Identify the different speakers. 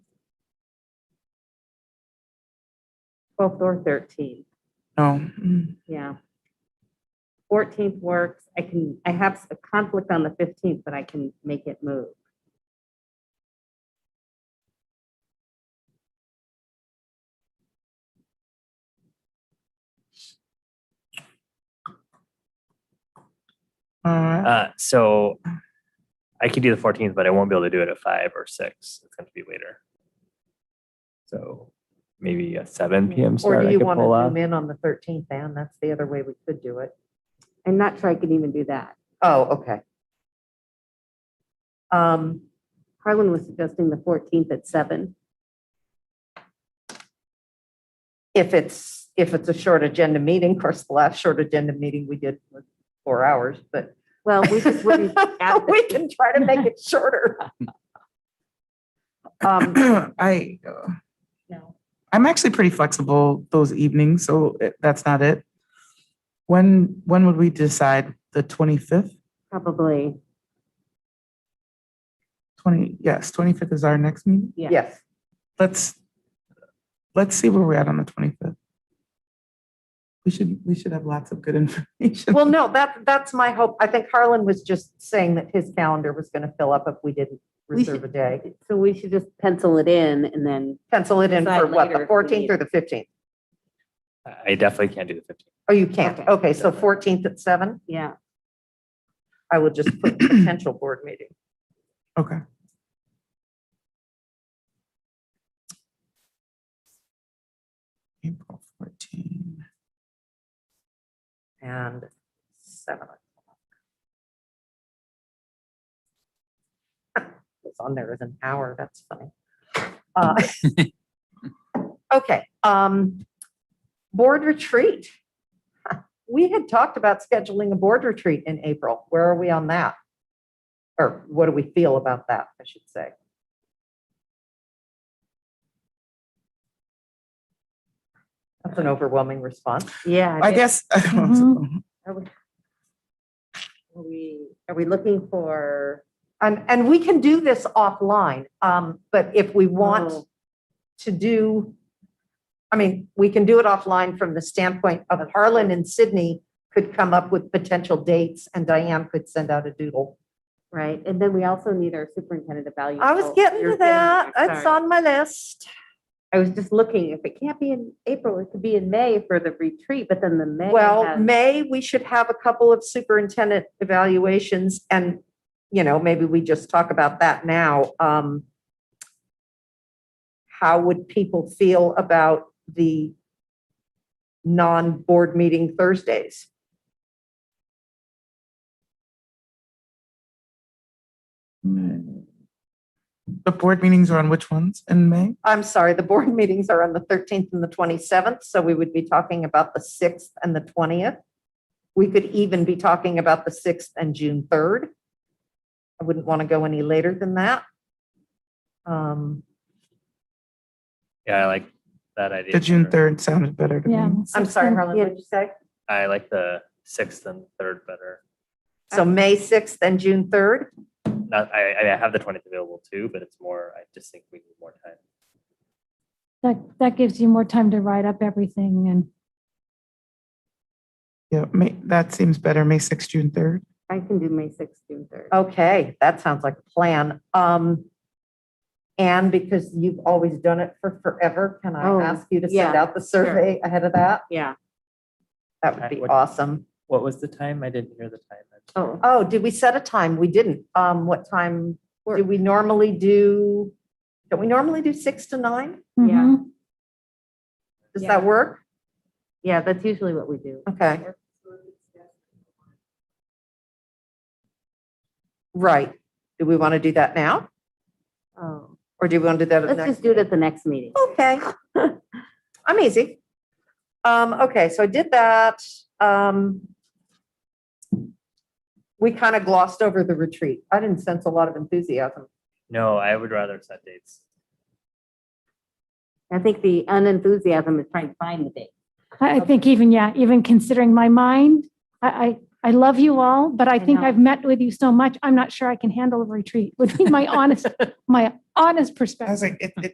Speaker 1: twelfth or thirteenth,
Speaker 2: Oh,
Speaker 1: yeah. Fourteenth works, I can, I have a conflict on the fifteenth, but I can make it move.
Speaker 2: uh,
Speaker 3: Oh.
Speaker 4: Uh, so I could do the fourteenth, but I won't be able to do it at five or six. It's going to be later. So maybe a seven PM
Speaker 3: Mm-hmm. Or
Speaker 4: start
Speaker 3: do
Speaker 4: I
Speaker 3: you
Speaker 4: could
Speaker 3: want to
Speaker 4: pull off.
Speaker 3: zoom in on the thirteenth, Anne? That's the other way we could do it.
Speaker 1: I'm not sure I can even do that.
Speaker 3: Oh, okay. Um,
Speaker 1: Harlan was suggesting the fourteenth at seven.
Speaker 3: if it's, if it's a short agenda meeting, of course, the last short agenda meeting we did was four hours, but
Speaker 1: Well, we just wouldn't add
Speaker 3: we can try to make it shorter. Um,
Speaker 2: I, uh,
Speaker 1: No.
Speaker 2: I'm actually pretty flexible those evenings, so it- that's not it. When, when would we decide? The 25th?
Speaker 1: probably,
Speaker 2: 20, yes, 25th is our next meeting.
Speaker 1: yeah.
Speaker 3: yes,
Speaker 2: Let's, let's see where we're at on the 25th. We should, we should have lots of good information.
Speaker 3: well, no, that, that's my hope. I think Harlan was just saying that his calendar was going to fill up if we didn't
Speaker 1: We
Speaker 3: reserve
Speaker 1: should-
Speaker 3: a day.
Speaker 1: So we should just pencil it in and then,
Speaker 3: Pencil it in for
Speaker 1: Decide
Speaker 3: what,
Speaker 1: later
Speaker 3: the
Speaker 1: if we
Speaker 3: fourteenth
Speaker 1: need-
Speaker 3: or the fifteenth?
Speaker 4: I definitely can't do the fifteenth.
Speaker 3: Oh, you can't.
Speaker 1: Okay.
Speaker 3: Okay, so fourteenth at seven?
Speaker 1: yeah,
Speaker 3: I will just put potential board meeting.
Speaker 2: Okay. April 14.
Speaker 3: and seven. o'clock. It's on there as an hour, that's funny. Uh, Okay, um, board retreat. We had talked about scheduling a board retreat in April. Where are we on that? Or what do we feel about that, I should say? That's an overwhelming response.
Speaker 1: yeah.
Speaker 2: I guess.
Speaker 1: Mhm. Are we, are we looking for,
Speaker 3: And, and we can do this offline, um, but if we want
Speaker 1: Oh.
Speaker 3: to do, I mean, we can do it offline from the standpoint of Harlan and Sydney could come up with potential dates and Diane could send out a doodle.
Speaker 1: right, and then we also need our superintendent evaluation.
Speaker 3: I was getting
Speaker 1: Oh, You're
Speaker 3: to that.
Speaker 1: there,
Speaker 3: It's
Speaker 1: sorry.
Speaker 3: on my list.
Speaker 1: I was just looking, if it can't be in April, it could be in May for the retreat, but then the May.
Speaker 3: Well,
Speaker 1: has-
Speaker 3: May, we should have a couple of superintendent evaluations and, you know, maybe we just talk about that now. Um, How would people feel about the non-board meeting Thursdays?
Speaker 2: The board meetings are on which ones in May?
Speaker 3: I'm sorry, the board meetings are on the 13th and the 27th, so we would be talking about the 6th and the 20th. We could even be talking about the 6th and June 3rd. I wouldn't want to go any later than that. Um,
Speaker 4: Yeah, I like that idea.
Speaker 2: The June
Speaker 4: better.
Speaker 2: 3rd sounded better to
Speaker 5: Yeah.
Speaker 2: me.
Speaker 3: I'm sorry, Harlan,
Speaker 1: yeah.
Speaker 3: what did you say?
Speaker 4: I like the sixth and third better.
Speaker 3: So May 6th and June 3rd?
Speaker 4: Not, I, I mean, I have the twentieth available too, but it's more, I just think we need more time.
Speaker 5: That, that gives you more time to write up everything and
Speaker 2: Yeah, May, that seems better, May 6th, June 3rd.
Speaker 1: I can do May sixth, June third.
Speaker 3: Oh. Okay, that sounds like a plan. Um, and because you've always done it for forever, can I
Speaker 1: Oh,
Speaker 3: ask you to send
Speaker 1: yeah,
Speaker 3: out the survey ahead of that?
Speaker 1: Yeah,
Speaker 3: That would be
Speaker 4: What-
Speaker 3: awesome.
Speaker 4: What was the time? I didn't hear the time.
Speaker 1: oh,
Speaker 3: Oh, did we set a time? We didn't. Um, what time? Do
Speaker 1: Work.
Speaker 3: we normally do? Don't we normally do six to nine?
Speaker 1: Yeah.
Speaker 5: Mhm.
Speaker 3: Does
Speaker 1: Yeah.
Speaker 3: that work?
Speaker 1: yeah, that's usually what we do.
Speaker 3: Okay. Right. Do we want to do that now?
Speaker 1: Oh,
Speaker 3: Or do we want to do that at the
Speaker 1: let's
Speaker 3: next?
Speaker 1: just do it
Speaker 3: meeting?
Speaker 1: at the next meeting.
Speaker 3: Okay. I'm easy. Um, okay, so I did that. Um, we kind of glossed over the retreat. I didn't sense a lot of enthusiasm.
Speaker 4: No, I would rather set dates.
Speaker 1: I think the unenthusiasm is trying to find the date.
Speaker 5: I, I think even, yeah, even considering my mind, I, I, I love you all, but I think
Speaker 1: know.
Speaker 5: I've met with you so much, I'm not sure I can handle a retreat, would be my honest, my
Speaker 2: I was
Speaker 5: honest perspective.
Speaker 2: like, it, it,